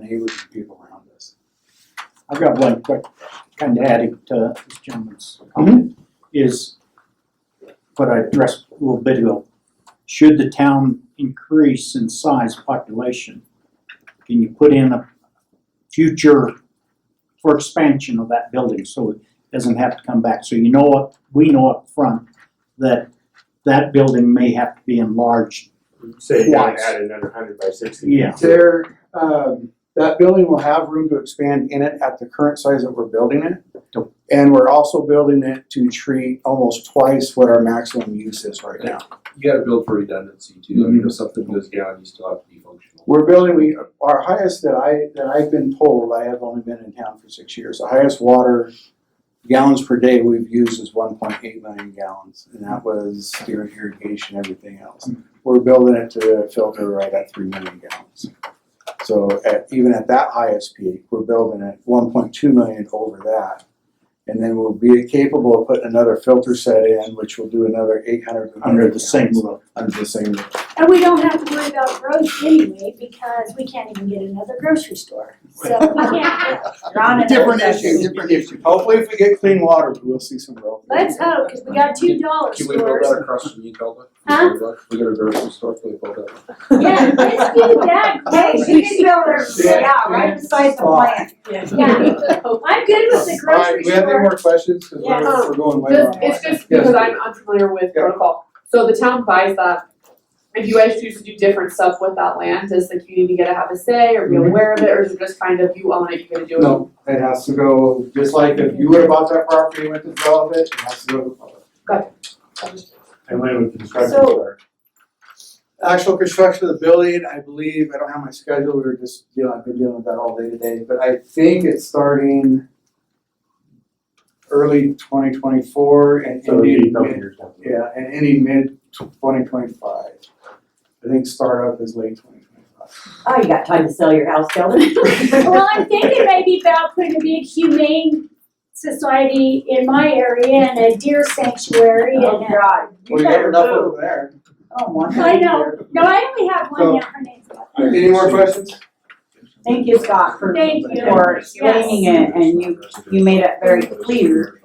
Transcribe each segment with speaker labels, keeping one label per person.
Speaker 1: neighbors and people around us. I've got one quick, kind of adding to this gentleman's comment, is what I addressed a little bit ago. Should the town increase in size population, can you put in a future for expansion of that building, so it doesn't have to come back? So you know what, we know up front that that building may have to be enlarged
Speaker 2: Say you want
Speaker 1: Twice.
Speaker 2: to add another hundred by sixty.
Speaker 1: Yeah.
Speaker 3: There, um, that building will have room to expand in it at the current size that we're building it.
Speaker 1: Yep.
Speaker 3: And we're also building it to treat almost twice what our maximum use is right now.
Speaker 4: You gotta build for redundancy too, I mean, if something goes down, you still have to be functional.
Speaker 3: We're building, we, our highest that I, that I've been told, I have only been in town for six years, the highest water gallons per day we've used is one point eight million gallons, and that was during irrigation, everything
Speaker 1: Hmm.
Speaker 3: else. We're building it to filter right at three million gallons. So at, even at that highest peak, we're building it one point two million over that. And then we'll be capable of putting another filter set in, which will do another eight hundred.
Speaker 1: under the same roof.
Speaker 3: Under the same
Speaker 5: And we don't have to worry about roads anyway, because we can't even get another grocery store, so we can't.
Speaker 6: You're on an
Speaker 3: Different
Speaker 6: obsession.
Speaker 3: issue, different issue. Hopefully, if we get clean water, we'll see some growth.
Speaker 5: Let's hope, because we got two dollar
Speaker 4: Can we build that
Speaker 5: stores.
Speaker 4: across from you, Calvin?
Speaker 5: Huh?
Speaker 4: We got a grocery store, can we build that?
Speaker 5: Yeah, let's do that.
Speaker 6: Hey, she can build her, yeah, right beside the plant.
Speaker 5: Yeah, I'm good with the
Speaker 3: All right,
Speaker 5: grocery
Speaker 3: do we have any
Speaker 5: store.
Speaker 3: more questions? Because we're,
Speaker 5: Yes.
Speaker 3: we're going way
Speaker 7: Just,
Speaker 3: long.
Speaker 7: it's just
Speaker 3: Yes.
Speaker 7: because I'm unfamiliar with
Speaker 3: Yeah.
Speaker 7: protocol, so the town buys that. If you guys choose to do different stuff with that land, does the community get to have a say or be
Speaker 3: Mhm.
Speaker 7: aware of it, or is it just kind of you own it, you gotta do it?
Speaker 3: No, it has to go, just like if you would have bought that property and went to develop it, it has to go to the public.
Speaker 2: And when would construction
Speaker 5: So-
Speaker 2: start?
Speaker 3: Actual construction of the building, I believe, I don't have my schedule, we were just dealing, I've been dealing with that all day today, but I think it's starting early twenty twenty-four and
Speaker 2: So it'd be
Speaker 3: ending
Speaker 2: a couple
Speaker 3: mid-
Speaker 2: years down the road.
Speaker 3: Yeah, and any mid twenty twenty-five. I think startup is late twenty twenty-five.
Speaker 6: Oh, you got time to sell your house, Kelly?
Speaker 5: Well, I'm thinking maybe about putting a big humane society in my area and a deer sanctuary and
Speaker 6: Oh,
Speaker 5: a.
Speaker 6: God.
Speaker 3: Well, you have enough over there.
Speaker 6: Oh, one.
Speaker 5: I know, no, I only have one, yeah, her name's.
Speaker 3: Any more questions?
Speaker 6: Thank you, Scott, for,
Speaker 5: Thank you.
Speaker 6: for explaining it, and you, you made it very clear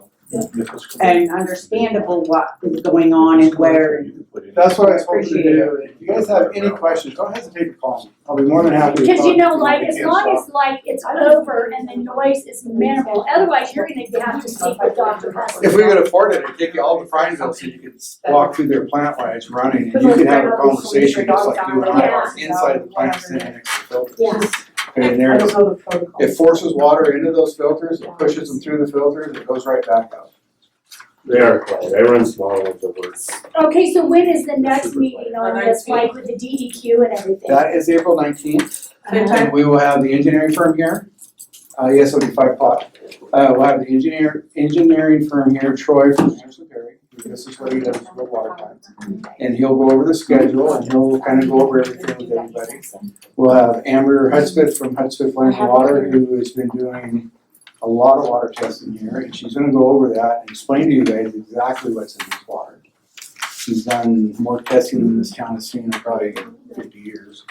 Speaker 6: and understandable what is going on and where.
Speaker 3: That's what I was hoping to
Speaker 6: Appreciate
Speaker 3: do. If you guys have any questions, don't hesitate to call me. I'll be more than happy to talk.
Speaker 5: Cause you know,
Speaker 3: to
Speaker 5: like,
Speaker 3: if
Speaker 5: as
Speaker 3: you
Speaker 5: long
Speaker 3: can't
Speaker 5: as like it's over and the noise is minimal, otherwise you're gonna have to speak with Dr.
Speaker 3: stop.
Speaker 5: Hussey.
Speaker 3: If we could afford it, I'd take you all to Friendsville so you could s- walk through their plant while it's running and you could have a conversation just like you and I are inside the plant standing next to the filter.
Speaker 5: Yeah.
Speaker 3: And
Speaker 6: I
Speaker 3: there,
Speaker 6: don't know the protocol.
Speaker 3: it forces water into those filters, it pushes them through the filters, it goes right back out.
Speaker 2: They are quiet, everyone's small with the words.
Speaker 5: Okay, so when is the next meeting on this, like with the DEQ and everything?
Speaker 3: That is April nineteenth, and we will have the engineering firm here. Uh, yes, it'll be five o'clock. Uh, we'll have the engineer, engineering firm here, Troy from Anderson Perry, who this is what he does with water plants. And he'll go over the schedule and he'll kind of go over everything with everybody. We'll have Amber Hudspeth from Hudspeth Land and Water, who has been doing a lot of water testing here, and she's gonna go over that and explain to you guys exactly what's in this water. She's done more testing than this town has seen in probably fifty years.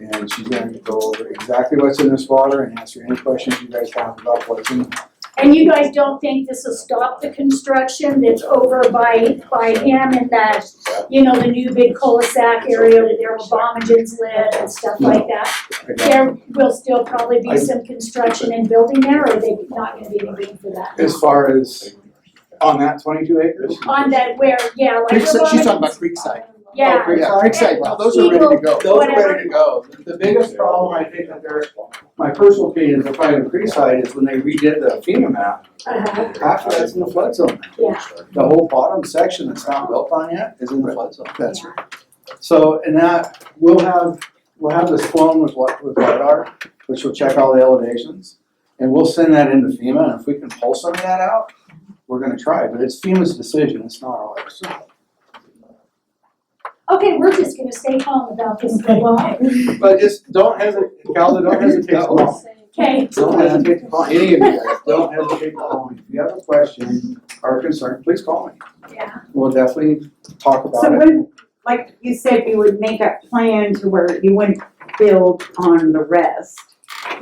Speaker 3: And she's going to go over exactly what's in this water and answer any questions you guys have about what's in.
Speaker 5: And you guys don't think this will stop the construction that's over by, by him and that, you know, the new big cul-de-sac area where their Obamagens live and stuff like that? There will still probably be some construction and building there, or they not gonna be any room for that?
Speaker 3: As far as on that twenty-two acres.
Speaker 5: On that where, yeah, like.
Speaker 3: Creekside- she's talking
Speaker 5: Obamagens-
Speaker 3: about Creekside.
Speaker 5: Yeah.
Speaker 3: Oh, Creekside, Creekside, no, those are ready to go. Those are ready to go. The biggest problem I think that they're, my personal opinion, they're finding in Creekside is when they redid the FEMA map,
Speaker 5: Uh-huh.
Speaker 3: half of that's in the flood zone.
Speaker 5: Yeah.
Speaker 3: The whole bottom section that's not built on yet is in the flood zone.
Speaker 5: That's
Speaker 3: right. So, and that, we'll have, we'll have this flown with what, with radar, which will check all the elevations. And we'll send that into FEMA, and if we can pull some of that out, we're gonna try, but it's FEMA's decision, it's not ours.
Speaker 5: Okay, we're just gonna stay calm about this for a while.
Speaker 3: But just don't hesitate, Calda, don't hesitate to call.
Speaker 5: Okay,
Speaker 3: Don't hesitate to call, any of you guys, don't hesitate to call me. If you have a question or concern, please call me.
Speaker 5: yeah.
Speaker 3: We'll definitely talk
Speaker 6: So
Speaker 3: about it.
Speaker 6: when, like you said, you would make a plan to where you wouldn't build on the rest.